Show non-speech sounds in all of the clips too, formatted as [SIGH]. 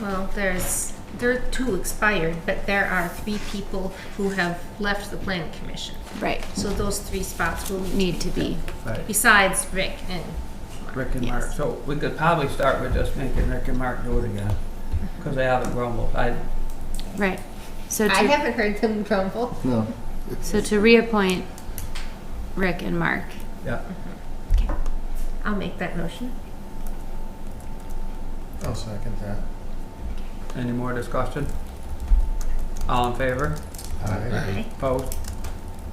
Well, there's, there are two expired, but there are three people who have left the planning commission. Right. So those three spots will Need to be. Right, besides Rick and Rick and Mark, Yes. so we could probably start with just making Rick and Mark do it again, because they haven't grumbled, I, Right. So I to, haven't heard them grumble. No. so to reappoint Rick and Mark. yeah. I'll make that motion. I'll second that. Any more discussion? All in favor? Aye. Opposed?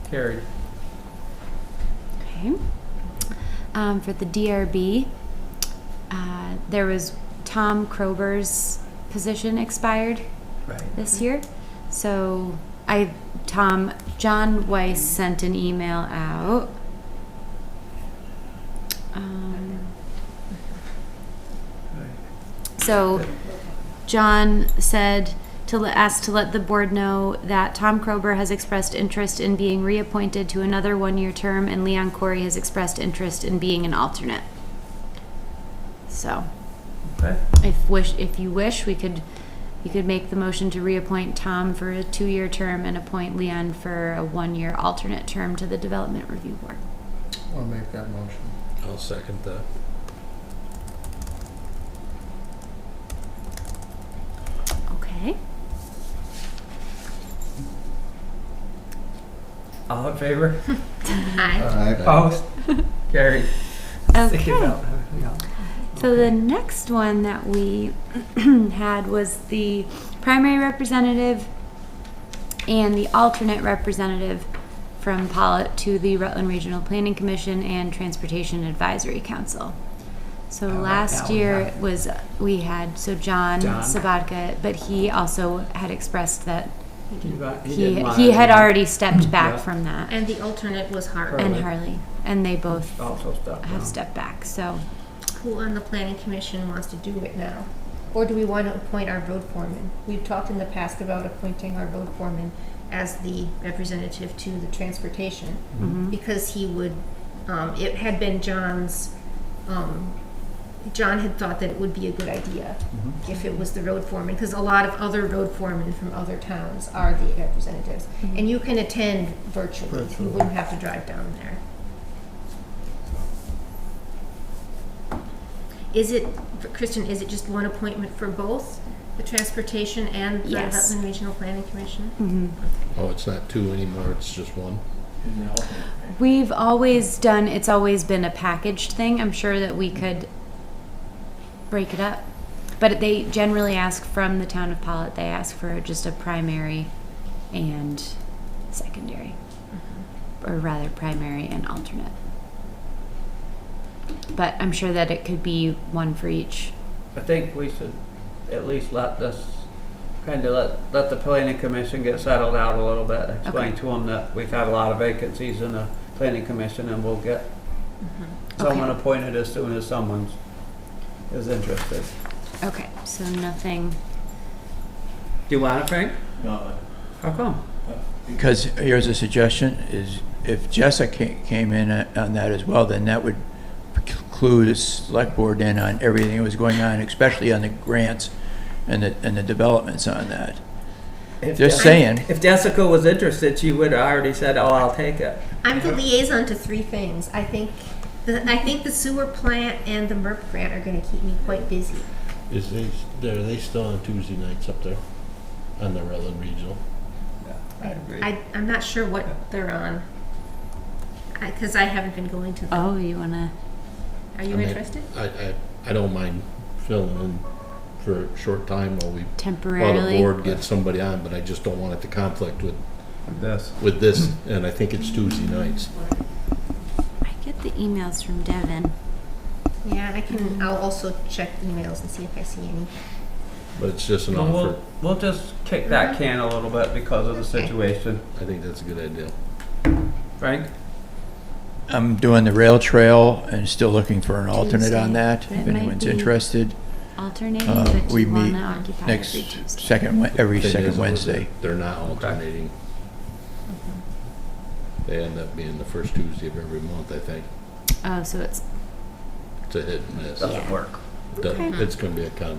Carried. Okay. Um, for the DRB, uh, there was Tom Krober's position expired Right. this year. So I, Tom, John Weiss sent an email out. Um, So John said to le- ask to let the board know that Tom Krober has expressed interest in being reappointed to another one-year term and Leon Corey has expressed interest in being an alternate. So Okay, if wish, if you wish, we could, you could make the motion to reappoint Tom for a two-year term and appoint Leon for a one-year alternate term to the Development Review Board. I'll make that motion. I'll second that. Okay. all in favor? Aye. Aye. Opposed? Carried. [LAUGHS] Stick Okay. it out, everything else. So the next one that we [CLEARS THROAT] had was the primary representative and the alternate representative from Pollitt to the Rutland Regional Planning Commission and Transportation Advisory Council. So I like that last one, year yeah. it was, we had, so John John. Sabatka, but he also had expressed that You got- he, didn't want he it. had already stepped back Yeah. from that, And the alternate was Hart, and Harley. Harley, and they both Also stuck. have no. stepped back, so. who on the planning commission wants to do it now. Or do we want to appoint our road foreman? We've talked in the past about appointing our road foreman as the representative to the transportation. Mm-hmm. mhm. because he would, um, it had been John's, um, John had thought that it would be a good idea if it was the road foreman, because a lot of other road foremen from other towns are the representatives. And you can attend virtually, you Virtually. wouldn't have to drive down there. Is it, Kristen, is it just one appointment for both, the transportation and the Yes. Rutland Regional Planning Commission? Mhm. Oh, it's not two anymore, it's just one? We've always done, it's always been a packaged thing. I'm sure that we could break it up. But they generally ask from the town of Pollitt, they ask for just a primary and secondary. Or rather, primary and alternate. But I'm sure that it could be one for each. I think we should at least let this, kind of let, let the planning commission get settled out a little bit. Explain Okay. to them that we've had a lot of vacancies in the planning commission and we'll get someone appointed as soon as someone's, is interested. Okay, so nothing. Do you want it, Frank? No, How come? Because here's a suggestion, is if Jessica ca- came in uh, on that as well, then that would clue the select board in on everything that was going on, especially on the grants and the, and the developments on that. If Just Jessica- saying. If Jessica was interested, she would have already said, oh, I'll take it. I'm the liaison to three things. I think the I think the sewer plant and the MERP grant are going to keep me quite busy. Is they, are they still on Tuesday nights up there on the Rutland Regional? I agree. I I'm not sure what they're on because I, haven't been going to them. Oh, you wanna? are you I mean- interested? I, I, I don't mind filling in for a short time while we, while the Temporarily. board gets somebody on, but I just don't want it to conflict with, This. with this, and I think it's Tuesday nights. I get the emails from Devin. Yeah, I can. I'll also check emails and see if I see any. But it's just an offer. We'll, we'll just kick that can a little bit because of the situation. I think that's a good idea. Frank? I'm doing the rail trail and still looking for an alternate Tuesday. on that, That if might anyone's be- interested. Alternating, Uh, but we you meet wanna occupy Next, every Tuesday. second, Wed- every Thing second is, Wednesday. They're not alternating. They end up being the first Tuesday of every month, I think. Oh, so it's It's a hit and miss. Doesn't work. Doesn't- It's gonna be a conflict.